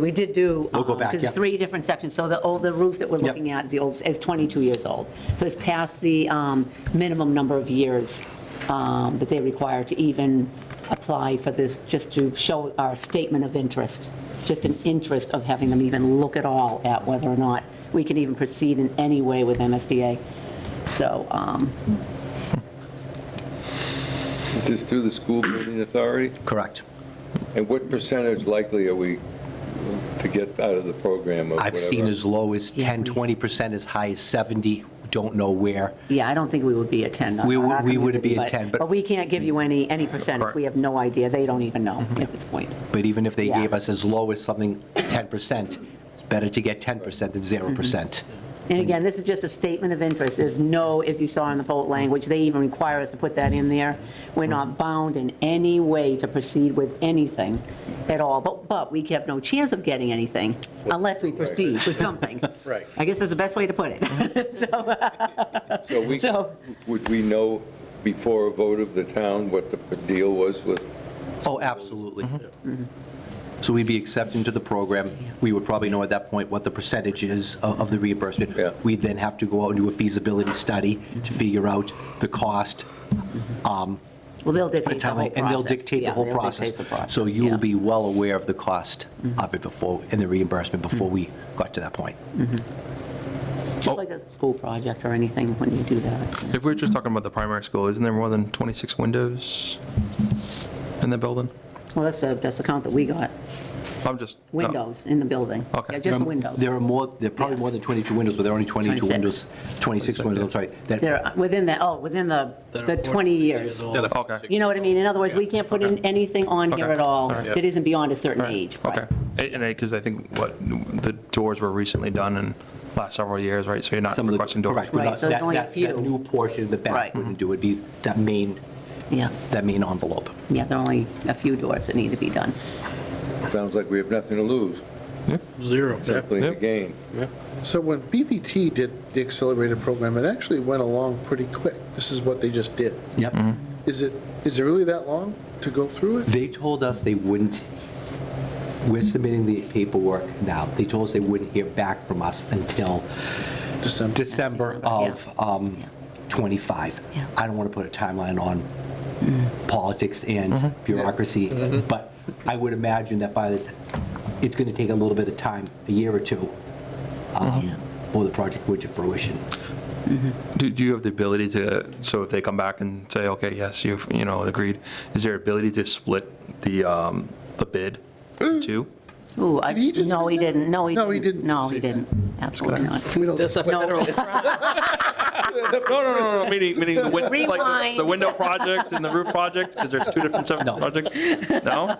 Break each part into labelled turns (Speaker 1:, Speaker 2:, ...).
Speaker 1: We did do.
Speaker 2: We'll go
Speaker 1: um,
Speaker 2: back,
Speaker 1: 'cause
Speaker 2: yeah.
Speaker 1: it's three different sections, so the old, the roof that we're
Speaker 2: Yep.
Speaker 1: looking at, the old, is 22 years old. So it's past the um, minimum number of years um, that they require to even apply for this, just to show our statement of interest, just an interest of having them even look at all at whether or not we can even proceed in any way with MSBA. So, um,
Speaker 3: Is this through the school building authority?
Speaker 2: Correct.
Speaker 3: And what percentage likely are we to get out of the program or whatever?
Speaker 2: I've seen as low as 10,
Speaker 1: Yeah.
Speaker 2: 20%, as high as 70, don't know where.
Speaker 1: yeah, I don't think we would be at 10. on
Speaker 2: We would-
Speaker 1: our
Speaker 2: we wouldn't be at
Speaker 1: community,
Speaker 2: 10, but-
Speaker 1: But we can't give you any, any percentage.
Speaker 2: Correct. Mm-hmm.
Speaker 1: We have no idea. They don't even know at this point.
Speaker 2: But even if they
Speaker 1: Yeah.
Speaker 2: gave us as low as something, 10%, it's better to get 10% than
Speaker 1: Mm-hmm.
Speaker 2: 0%.
Speaker 1: And again, this is just a statement of interest, there's no, as you saw in the vote language, they even require us to put that in there. We're not bound in any way to proceed with anything at all, but, but we have no chance of getting anything unless we proceed with something.
Speaker 4: Right.
Speaker 1: I guess that's the best way to put it. So,
Speaker 3: So we,
Speaker 1: so-
Speaker 3: would we know before a vote of the town what the deal was with?
Speaker 2: Oh, absolutely.
Speaker 1: Mm-hmm.
Speaker 2: So we'd be accepting to the program. We would probably know at that point what the percentage is of of the reimbursement.
Speaker 3: Yeah.
Speaker 2: We'd then have to go out and do a feasibility study
Speaker 1: Mm-hmm.
Speaker 2: to figure out the cost, Um,
Speaker 1: Well, they'll
Speaker 2: the
Speaker 1: dictate the whole
Speaker 2: timeline,
Speaker 1: process.
Speaker 2: and they'll dictate the
Speaker 1: Yeah,
Speaker 2: whole
Speaker 1: they'll
Speaker 2: process.
Speaker 1: dictate the process,
Speaker 2: So you
Speaker 1: yeah.
Speaker 2: will be well aware of the cost of it before, and the reimbursement before we got to that point.
Speaker 1: Just like a school project or anything when you do that.
Speaker 5: If we're just talking about the primary school, isn't there more than 26 windows in the building?
Speaker 1: Well, that's the, that's the count that we got,
Speaker 2: Oh.
Speaker 5: I'm just. no.
Speaker 1: windows in the building.
Speaker 5: Okay.
Speaker 1: Yeah, just the windows.
Speaker 2: There are more, there are probably more than 22 windows, but there are only 22
Speaker 1: 26.
Speaker 2: windows, 26 windows, I'm sorry, that
Speaker 1: They're within the, oh, within the,
Speaker 4: that
Speaker 1: the
Speaker 4: are 46
Speaker 1: 20 years.
Speaker 4: old.
Speaker 5: Okay,
Speaker 1: You know what I mean? In other words, we can't put in anything on here
Speaker 5: Okay.
Speaker 1: at all
Speaker 5: All right.
Speaker 1: that isn't beyond a certain age.
Speaker 5: okay. And- And, because I think what, the doors were recently done in last several years, right? So you're not
Speaker 2: some of the.
Speaker 5: requesting doors.
Speaker 2: correct, we're
Speaker 1: Right,
Speaker 2: not-
Speaker 1: so there's
Speaker 2: that-
Speaker 1: only a
Speaker 2: that-
Speaker 1: few.
Speaker 2: That new portion of the back
Speaker 1: Right.
Speaker 2: wouldn't do, it'd be that main,
Speaker 1: Yeah,
Speaker 2: that main envelope.
Speaker 1: yeah, there are only a few doors that need to be done.
Speaker 3: Sounds like we have nothing to lose,
Speaker 4: Zero.
Speaker 3: simply to
Speaker 5: Yep.
Speaker 3: gain.
Speaker 6: So when BVT did the accelerated program, it actually went along pretty quick. This is what they just did.
Speaker 2: Yep.
Speaker 6: Is it, is it really that long to go through it?
Speaker 2: Mm-hmm. They told us they wouldn't, we're submitting the paperwork now, they told us they wouldn't hear back from us until
Speaker 6: December?
Speaker 2: December
Speaker 1: December,
Speaker 2: of
Speaker 1: yeah.
Speaker 2: um,
Speaker 1: Yeah.
Speaker 2: 25.
Speaker 1: Yeah. Mm.
Speaker 2: I don't want to put a timeline on politics
Speaker 5: Mm-hmm.
Speaker 2: and bureaucracy, but I would imagine that by the, t- it's going to take a little bit of time, a year or two, um,
Speaker 1: Yeah.
Speaker 2: for the project would to fruition.
Speaker 5: Do, do you have the ability to, so if they come back and say, okay, yes, you've, you know, agreed, is there ability to split the, um, the bid in two?
Speaker 1: Ooh, I,
Speaker 6: Did he just
Speaker 1: no,
Speaker 6: say
Speaker 1: he
Speaker 6: that?
Speaker 1: didn't, no, he didn't.
Speaker 6: No, he didn't
Speaker 1: No, he
Speaker 6: say that.
Speaker 1: didn't, absolutely not.
Speaker 6: We don't-
Speaker 4: That's a federal.
Speaker 5: No, no, no, no, meaning, meaning the win- like the- the
Speaker 1: Rewind.
Speaker 5: window project and the roof project, because there's two different separate projects? No?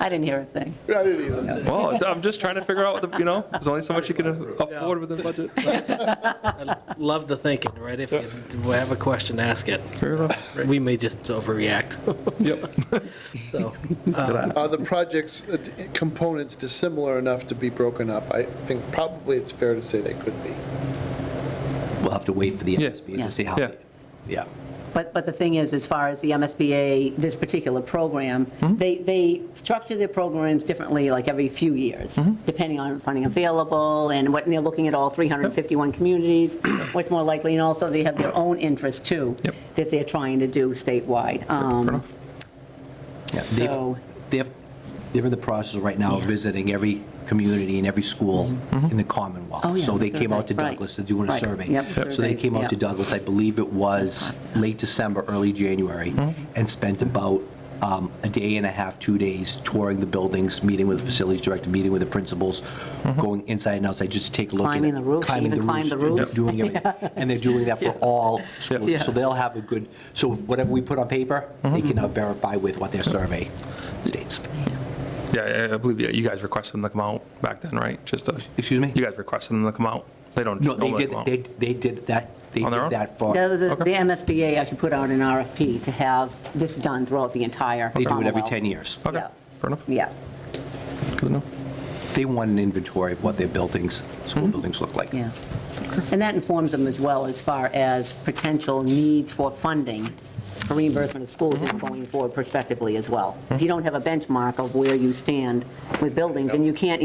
Speaker 1: I didn't hear a thing.
Speaker 6: I didn't either.
Speaker 5: Well, it's- I'm just trying to figure out, what the you know, there's only so much you can afford with the budget.
Speaker 4: Love the thinking, right? If you have a question, ask it.
Speaker 5: Fair enough.
Speaker 4: We may just overreact.
Speaker 5: Yep.
Speaker 4: So,
Speaker 6: Are the project's uh, d- components dissimilar enough to be broken up? I think probably it's fair to say they could be.
Speaker 2: We'll have to wait for the
Speaker 5: Yeah.
Speaker 2: MSB
Speaker 1: Yeah.
Speaker 2: to see how,
Speaker 5: Yeah.
Speaker 2: they- yeah.
Speaker 1: But, but the thing is, as far as the MSBA, this particular program,
Speaker 2: Mm-hmm.
Speaker 1: they, they structure their programs differently, like every few years,
Speaker 2: Mm-hmm.
Speaker 1: depending on funding available and what, and they're looking at all 351 communities, what's more likely, and also they have their own interests too,
Speaker 5: Yep.
Speaker 1: that they're trying to do statewide. Um,
Speaker 5: enough.
Speaker 2: Yeah, they've-
Speaker 1: So-
Speaker 2: They're, they're in the process right now of
Speaker 1: Yeah.
Speaker 2: visiting every community and every school in the Commonwealth.
Speaker 1: Oh, yeah,
Speaker 2: So
Speaker 1: the
Speaker 2: they came out to
Speaker 1: survey, right,
Speaker 2: Douglas to do a
Speaker 1: right,
Speaker 2: survey.
Speaker 1: yep, the
Speaker 2: So they
Speaker 1: surveys,
Speaker 2: came out to
Speaker 1: yeah.
Speaker 2: Douglas, I believe it was late December, early January,
Speaker 1: Mm-hmm.
Speaker 2: and spent about um, a day and a half, two days touring the buildings, meeting with the facilities director, meeting with the principals, going inside and outside just to take a look. at
Speaker 1: Mm-hmm. Climbing
Speaker 2: it,
Speaker 1: the roofs,
Speaker 2: climbing
Speaker 1: even climbed the
Speaker 2: roofs,
Speaker 1: roofs.
Speaker 2: Doing everything. And they're doing that for all
Speaker 1: Yeah.
Speaker 2: schools. So they'll have a good, so whatever we put on paper, they
Speaker 5: Mm-hmm.
Speaker 2: can now verify with what their survey states.
Speaker 5: Yeah, I- I believe you- you guys requested them to come out back then, right? Just to.
Speaker 2: Excuse me?
Speaker 5: You guys requested them to come out. They don't.
Speaker 2: No, they
Speaker 5: normally
Speaker 2: did,
Speaker 5: come out.
Speaker 2: they, they did that, they
Speaker 5: Oh, On their
Speaker 2: did
Speaker 5: own?
Speaker 2: that for,
Speaker 1: That was, a- the
Speaker 5: Okay.
Speaker 1: MSBA actually put out an RFP to have this done throughout the entire
Speaker 2: they do it every
Speaker 1: Commonwealth.
Speaker 2: 10 years.
Speaker 5: Okay,
Speaker 1: yeah.
Speaker 5: fair enough.
Speaker 1: Yeah,
Speaker 5: Good enough.
Speaker 2: They want an inventory of what their buildings, school
Speaker 5: Mm-hmm.
Speaker 2: buildings look like.
Speaker 1: yeah. And that informs them as well as far as potential needs for funding for reimbursement of schools and going forward prospectively as well. If you don't have a benchmark of where you stand with buildings, and you can't